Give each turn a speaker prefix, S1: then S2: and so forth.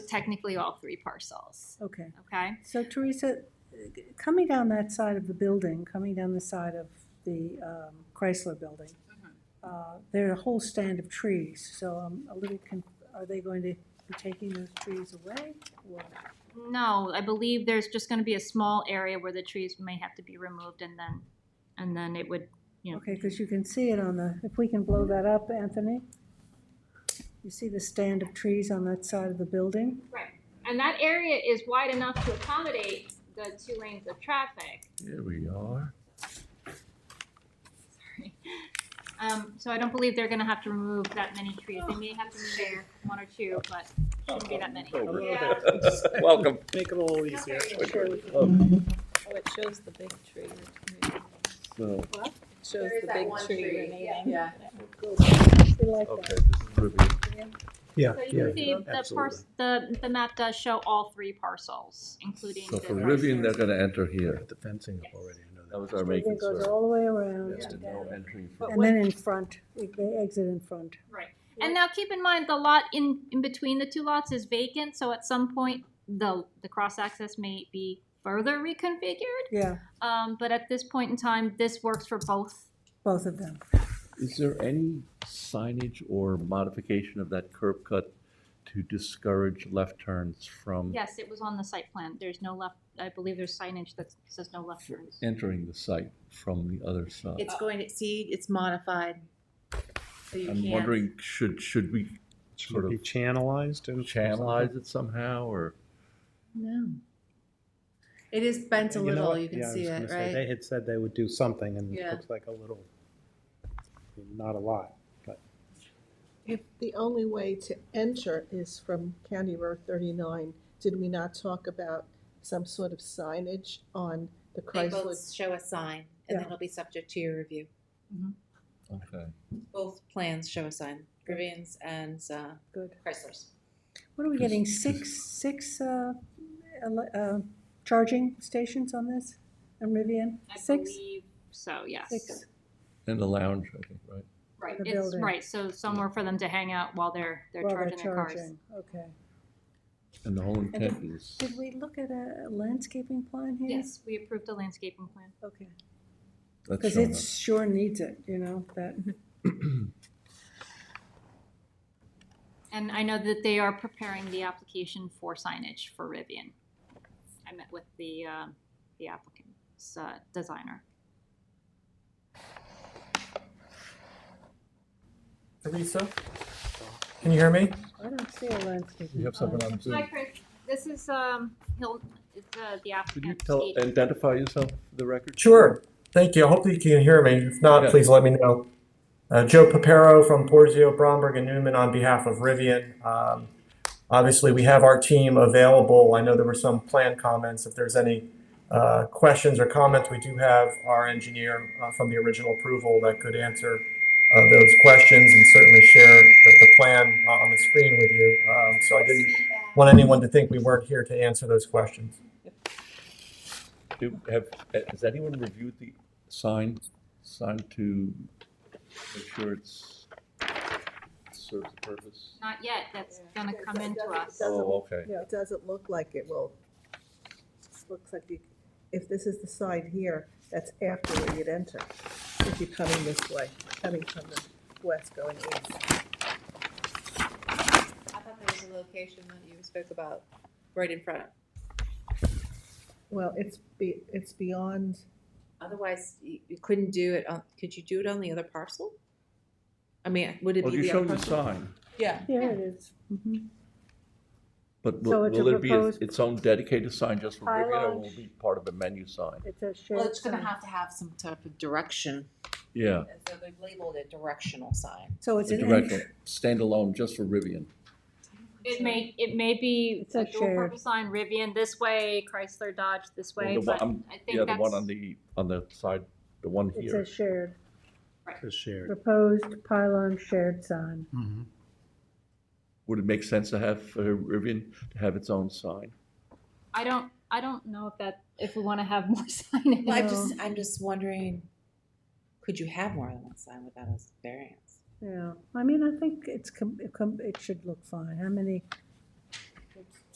S1: technically all three parcels,
S2: Okay,
S1: okay?
S2: so Teresa, coming down that side of the building, coming down the side of the um, Chrysler building,
S3: Mm-hmm.
S2: uh, there are a whole stand of trees, so I'm a little, con- are they going to be taking those trees away? or-
S1: No, I believe there's just gonna be a small area where the trees may have to be removed and then, and then it would, you know,
S2: Okay, because you can see it on the, if we can blow that up, Anthony? You see the stand of trees on that side of the building?
S1: and that area is wide enough to accommodate the two lanes of traffic.
S4: Here we are.
S1: Sorry. Um, so I don't believe they're gonna have to remove that many trees. They may have to share one or two, but shouldn't be that many.
S5: Yeah.
S4: Welcome.
S6: Make it a little easier.
S5: Oh, it shows the big tree. remaining.
S4: So,
S5: It shows
S3: There is
S5: the
S3: that
S5: big
S3: one
S5: tree
S3: tree,
S5: remaining.
S3: yeah.
S2: We like that.
S4: okay, this is Ruby.
S6: Yeah,
S1: So you
S6: yeah.
S1: can see the pars, the, the map does show all three parcels, including
S4: So
S1: the.
S4: for Rivian, they're
S1: Chrysler.
S4: gonna enter here.
S6: Got the fencing up already. I know
S4: That was
S6: that.
S4: our main
S2: It goes
S4: concern.
S2: all the way around,
S4: Yes, to
S2: down.
S4: no entry for-
S5: But
S2: and then in front, they exit in front.
S1: Right. And now keep in mind, the lot in, in between the two lots is vacant, so at some point, the, the cross access may be further reconfigured.
S2: Yeah,
S1: Um, but at this point in time, this works for both.
S2: both of them.
S4: Is there any signage or modification of that curb cut to discourage left turns from
S1: Yes, it was on the site plan. There's no left, I believe there's signage that says no left turns.
S4: entering the site from the other side?
S6: Uh,
S3: It's going to, see, it's modified. So you
S4: I'm
S3: can't.
S4: wondering, should, should we sort
S6: Should
S4: of
S6: be channelized and.
S4: channelize it somehow, or?
S3: No. It is bent a
S6: You know
S3: little,
S6: what?
S3: you can
S6: Yeah, I
S3: see
S6: was gonna
S3: it,
S6: say, They
S3: right?
S6: had said they would do something and it
S3: Yeah.
S6: looks like a little, not a lot.
S7: If the only way to enter is from County Road thirty-nine, did we not talk about some sort of signage on the
S3: They
S7: Chrysler?
S3: both show a sign, and
S2: Yeah.
S3: then it'll be subject to your review.
S4: Okay.
S3: Both plans show a sign, Rivian's and uh,
S2: Good.
S3: Chrysler's.
S2: What are we getting, six, six uh, ele- uh, charging stations on this? And Rivian? Six?
S1: I believe so, yes.
S2: Six.
S4: In the lounge, I think, right?
S1: Right,
S2: the
S1: it's,
S2: building.
S1: right, so somewhere for them to hang out while they're, they're
S2: Well,
S1: charging their cars.
S2: charging, Okay.
S4: And the whole
S2: did-
S4: intent is,
S2: Did we look at a landscaping plan here?
S1: Yes, we approved the landscaping plan.
S2: Okay.
S4: that's
S2: Because
S4: shown
S2: it sure needs it, you know, that,
S1: And I know that they are preparing the application for signage for Rivian. I met with the, uh, the applicant's uh, designer.
S8: Teresa, can you hear me?
S2: I don't see a landscaping.
S8: You have someone on
S1: Hi,
S8: Zoom.
S1: Chris. This is, um, Hill, it's, uh, the
S4: up. Could you
S1: applicant.
S4: tell, identify yourself for the record?
S8: Sure, thank you. Hopefully you can hear me. If
S4: Yeah.
S8: not, please let me know. Uh, Joe Papero from Porzio, Bromberg and Newman on behalf of Rivian. Um, Obviously, we have our team available. I know there were some planned comments. If there's any uh, questions or comments, we do have our engineer uh, from the original approval that could answer uh, those questions and certainly share the the plan uh, on the screen with you. Um, So I didn't want anyone to think we weren't here to answer those questions.
S4: Do, have, eh, has anyone reviewed the sign, sign to make sure it's, serves the purpose?
S1: Not yet, that's gonna come into us.
S7: Doesn't-
S4: Oh, okay.
S7: It doesn't look like it will. It Looks like you, if this is the side here, that's after where you'd enter, if you're coming this way, coming from the west going east.
S3: I thought there was a location that you spoke about right in front.
S7: Well, it's be, it's beyond,
S3: Otherwise, you you couldn't do it on, could you do it on the other parcel? I mean, would it
S4: Well,
S3: be
S4: you
S3: the other
S4: showed the
S3: parcel?
S4: sign,
S3: Yeah.
S2: Here it is. Mhm.
S4: but
S2: So
S4: will,
S2: it's a
S4: will it be
S2: proposed-
S4: its own dedicated sign just for Rivian, or
S2: Pylon.
S4: will it be part of a menu sign?
S2: It's a
S3: Well,
S2: shared
S3: it's gonna
S2: sign.
S3: have to have some type of direction.
S4: Yeah,
S3: And so they've labeled it directional sign.
S2: So it's
S4: a
S2: an
S4: direct,
S2: entry.
S4: standalone just for Rivian.
S1: It may, it may be
S2: It's a
S1: a dual
S2: shared-
S1: purpose sign, Rivian this way, Chrysler Dodge this
S4: Well,
S1: way,
S4: the one-
S1: but
S4: I'm-
S1: I think
S4: Yeah, the one
S1: that's-
S4: on the, on the side, the one
S2: It's a
S4: here.
S2: shared,
S6: It's shared.
S2: proposed pylon shared sign.
S6: Mhm.
S4: Would it make sense to have uh, Rivian to have its own sign?
S1: I don't, I don't know if that, if we wanna have more signage.
S3: Well, I'm
S2: No.
S3: just, I'm just wondering, could you have more than one sign without a variance?
S2: Yeah, I mean, I think it's, com- it com- it should look fine. How many